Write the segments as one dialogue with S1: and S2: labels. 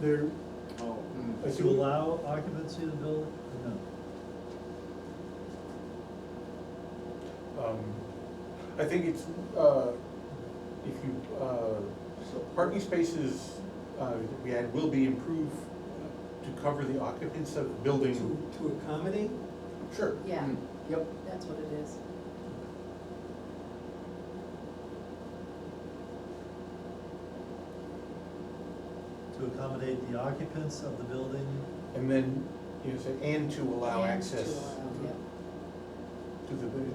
S1: There,
S2: Oh,
S1: to allow occupancy of the building, or no?
S3: Um, I think it's, uh, if you, uh, so parking spaces, uh, that we add will be improved to cover the occupants of the building.
S4: To, to accommodate?
S3: Sure.
S5: Yeah.
S1: Hmm.
S3: Mm.
S4: Yep.
S5: That's what it is.
S1: To accommodate the occupants of the building,
S3: And then, you know, say, and to allow
S5: And
S3: access
S5: To allow, yeah.
S3: to the, bu-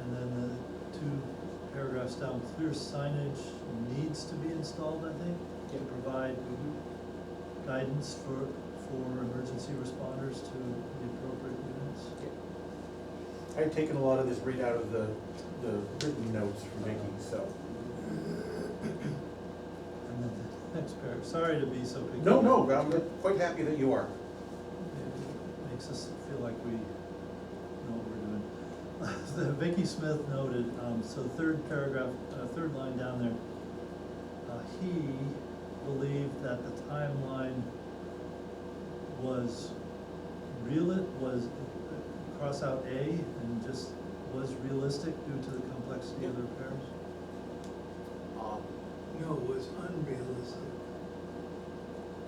S1: and then the two paragraphs down, clear signage needs to be installed, I think, to
S3: Yeah.
S1: provide guidance for, for emergency responders to the appropriate units.
S3: I've taken a lot of this right out of the, the written notes from Vicky, so.
S1: And then the next paragraph, sorry to be so picky.
S3: No, no, I'm quite happy that you are.
S1: It Makes us feel like we know what we're doing. The Vicky Smith noted, um, so third paragraph, uh, third line down there, uh, he believed that the timeline was real, it was, uh, cross out A and just was realistic due to the complexity of the repairs.
S2: um,
S4: No, it was unrealistic.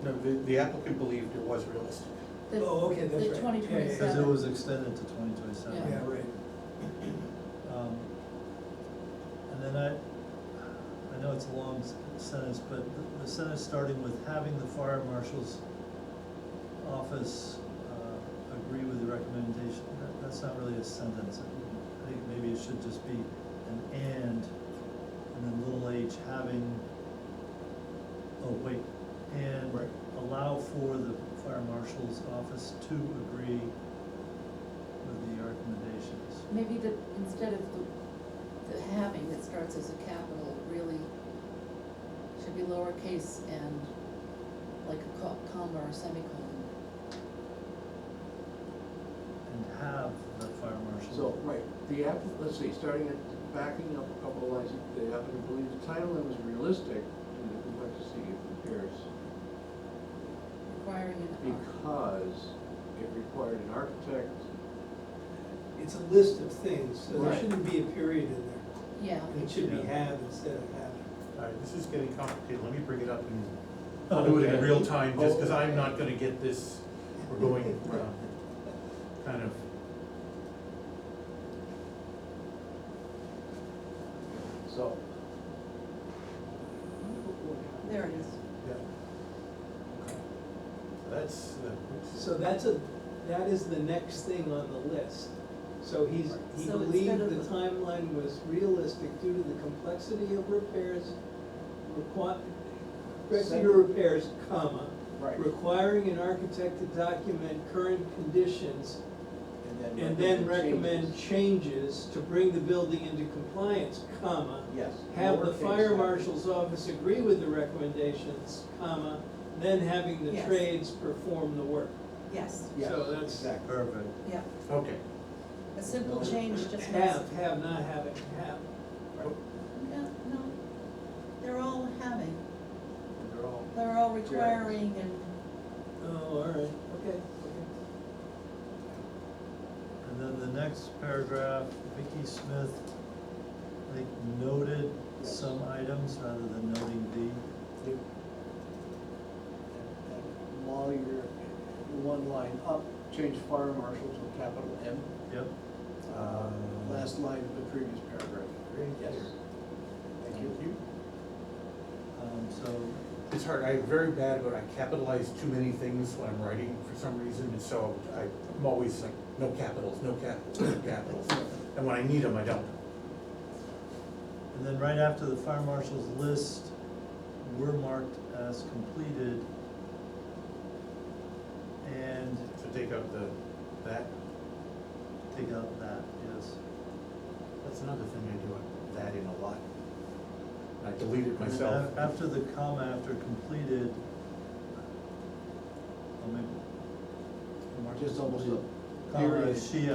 S3: No, the, the applicant believed it was realistic.
S5: The-
S4: Oh, okay, that's right.
S5: The
S4: Yeah, yeah,
S5: twenty
S4: yeah.
S1: Cause it
S5: twenty-seven.
S1: was extended to twenty twenty-seven.
S5: Yeah.
S4: Yeah, right.
S1: Um, And then I, I know it's a long s- sentence, but the- the sentence starting with having the fire marshal's office uh, agree with the recommendation, that, that's not really a sentence. I think maybe it should just be an and, and then little h having, oh, wait, and
S3: Right.
S1: allow for the fire marshal's office to agree with the recommendations.
S5: Maybe the, instead of the, the having that starts as a capital, it really should be lowercase and like a co- comma or semicolon.
S1: and have the fire marshal.
S2: So, right, the app, let's see, starting at, backing up a couple of lines, the applicant believes the timeline was realistic in the complexity of repairs
S5: Requiring an R.
S2: because it required an architect.
S4: It's a list of things, so there
S2: Right.
S4: shouldn't be a period in there.
S5: Yeah,
S4: It should be
S1: Yeah.
S4: have instead of having.
S3: All right, Uh, this is getting complicated, let me bring it up and
S1: Oh,
S3: I'll do it in
S1: okay.
S3: real time, just because
S2: Oh,
S3: I'm
S2: okay.
S3: not gonna get this, we're going, uh, kind of.
S2: So.
S5: there it is.
S3: yeah. Okay. That's, uh, it's-
S4: So that's a, that is the next thing on the list. So he's, he
S5: So
S4: believed
S5: instead of
S4: the
S5: the-
S4: timeline was realistic due to the complexity of repairs, require, complexity of repairs, comma,
S2: Right.
S4: requiring an architect to document current conditions and then recommend
S2: changes.
S4: changes to bring the building into compliance, comma,
S2: Yes.
S4: have the
S2: lowercase
S4: fire
S2: app.
S4: marshal's office agree with the recommendations, comma, then having the
S5: Yes.
S4: trades perform the work.
S5: Yes,
S2: Yes,
S4: so that's-
S2: Exactly.
S1: Perfect.
S5: yeah.
S3: okay,
S5: A simple change just makes.
S4: Have, have, not having, have.
S5: No, no, they're all having,
S2: They're all.
S5: they're all requiring and,
S4: Oh, all right, okay,
S1: And then the next paragraph, Vicky Smith, I think noted
S2: Yes.
S1: some items rather than noting
S2: Yep. While you're one line up, change fire marshal to a capital M,
S1: the, yep.
S3: uh.
S2: last line of the previous paragraph.
S3: Very
S2: Yes.
S3: clear.
S2: Thank you.
S1: Um, so,
S3: It's hard, I'm very bad about, I capitalize too many things when I'm writing for some reason, and so I- I'm always like, no capitals, no capitals, no capitals. And when I need them, I don't.
S1: and then right after the fire marshal's list were marked as completed. And
S3: So take out the, that,
S1: take out that, yes.
S3: that's another thing I do, I- that in a lot. I delete it
S1: And then
S3: myself.
S1: af- After the comma, after completed, oh, maybe. mark
S2: Just almost a
S1: completed, Comma,
S2: period.
S1: she